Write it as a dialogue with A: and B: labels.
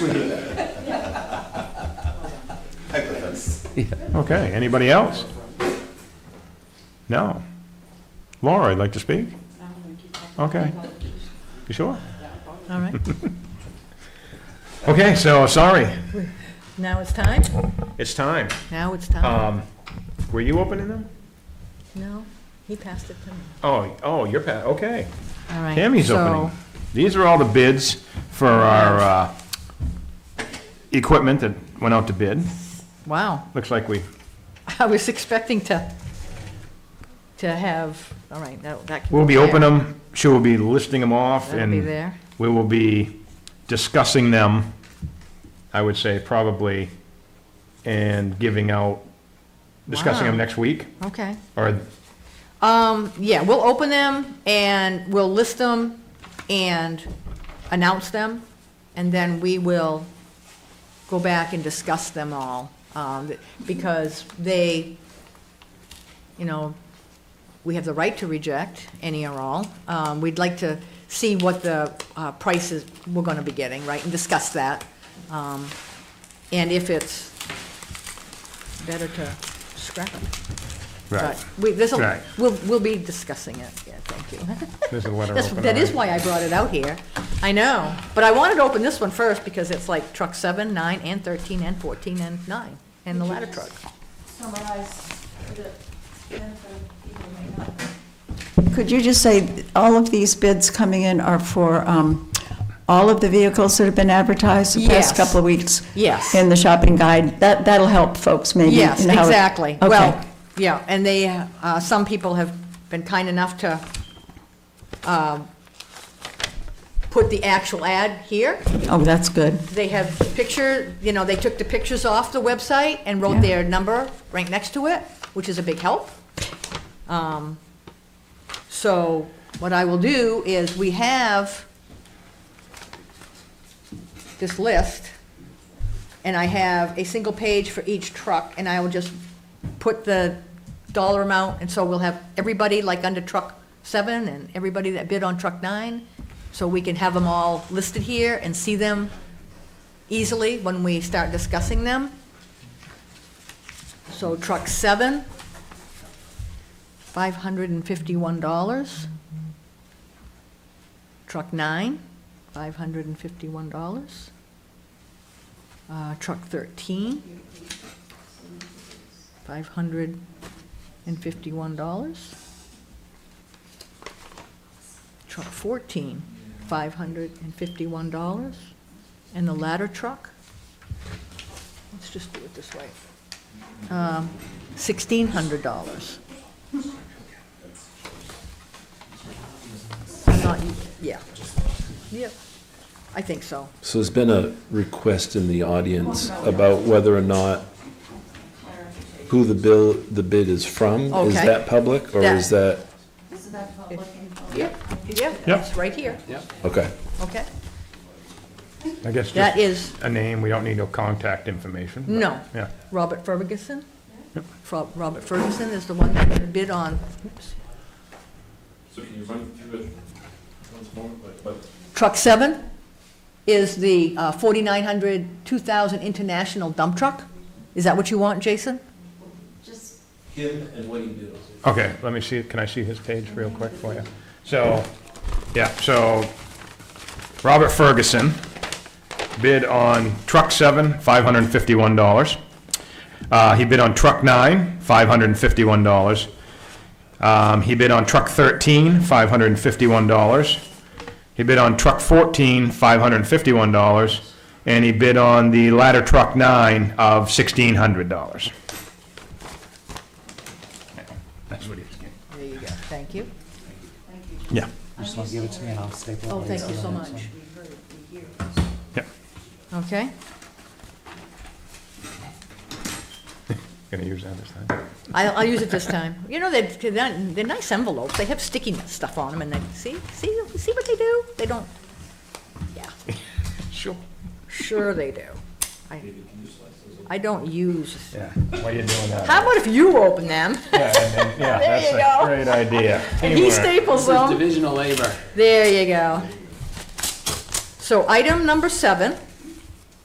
A: Okay, anybody else? No. Laura, I'd like to speak? Okay. You sure?
B: All right,
A: Okay, so, sorry,
B: now it's time?
A: it's time.
B: Now it's time.
A: Um, were you opening them?
B: No, he passed it to me.
A: Oh, oh, you're, pa- okay.
B: All right.
A: Tammy's opening. These are all the bids for our, uh, equipment that went out to bid.
B: Wow,
A: Looks like we,
B: I was expecting to, to have, all right, that, that can go
A: we'll be
B: there.
A: opening them, she will be listing them off,
B: That'll be
A: and
B: there.
A: we will be discussing them, I would say, probably, and giving out, discussing them
B: Wow.
A: next week,
B: Okay.
A: or,
B: Um, yeah, we'll open them and we'll list them and announce them. And then we will go back and discuss them all, um, because they, you know, we have the right to reject any or all. Um, we'd like to see what the, uh, prices we're gonna be getting, right, and discuss that. Um, and if it's better to scrap it.
A: right,
B: But we, this'll,
A: Right.
B: we'll, we'll be discussing it, yeah, thank you.
A: there's a letter
B: That's,
A: opener.
B: that is why I brought it out here, I know, but I wanted to open this one first, because it's like truck seven, nine, and thirteen, and fourteen, and nine, and the ladder truck.
C: summarize for the benefit of people who may not could you just say, all of these bids coming in are for um, all of the vehicles that have been advertised the
B: Yes.
C: past couple of weeks?
B: Yes.
C: In the shopping guide? That, that'll help folks maybe.
B: Yes,
C: in how it-
B: exactly,
C: Okay.
B: well, yeah, and they, uh, some people have been kind enough to, um, put the actual ad here,
C: Oh, that's good.
B: they have picture, you know, they took the pictures off the website and wrote
C: Yeah.
B: their number right next to it, which is a big help. Um, So what I will do is, we have this list, and I have a single page for each truck, and I will just put the dollar amount, and so we'll have everybody like under truck seven, and everybody that bid on truck nine, so we can have them all listed here and see them easily when we start discussing them. So truck seven, five hundred and fifty-one dollars. Truck nine, five hundred and fifty-one dollars. Uh, truck thirteen, five hundred and fifty-one dollars. Truck fourteen, five hundred and fifty-one dollars. And the ladder truck, let's just do it this way, um, $1,600. I'm not, yeah, yep, I think so.
D: So there's been a request in the audience about whether or not who the bill, the bid is from. Is
B: Okay.
D: that public or is that,
B: Yep, yeah,
A: Yep.
B: it's right here,
D: okay.
B: okay?
A: I guess
B: That
A: just
B: is
A: a name, we don't need no contact information. but-
B: No.
A: Yeah,
B: Robert Ferguson. Fro- Robert Ferguson is the one that bid on, oops,
E: So can you run through it once more, like, but
B: Truck seven is the uh, 4,900, 2,000 international dump truck. Is that what you want, Jason?
E: him and what he do?
A: okay, let me see, can I see his page real quick for you? So, yeah, so, Robert Ferguson bid on truck seven, five hundred and fifty-one dollars. Uh, he bid on truck nine, five hundred and fifty-one dollars. Um, he bid on truck thirteen, five hundred and fifty-one dollars. He bid on truck fourteen, five hundred and fifty-one dollars. And he bid on the ladder truck nine of sixteen hundred dollars. That's what he was getting.
B: There you go, thank you.
A: Yeah.
F: Just want to give it to me and I'll staple it.
B: Oh, thank you so much.
A: Yeah.
B: Okay,
A: Gonna use that this time.
B: I'll, I'll use it this time. You know, they're, they're they're nice envelopes, they have sticky stuff on them, and they, see, see, see what they do? They don't, yeah.
A: Sure.
B: Sure they do. I, I don't use,
A: Yeah, why you doing that?
B: how about if you open them?
A: Yeah, that's
B: you
A: a
B: go.
A: great idea.
B: And he
A: Teamwork.
B: staples them.
G: division of labor.
B: There you go. So item number seven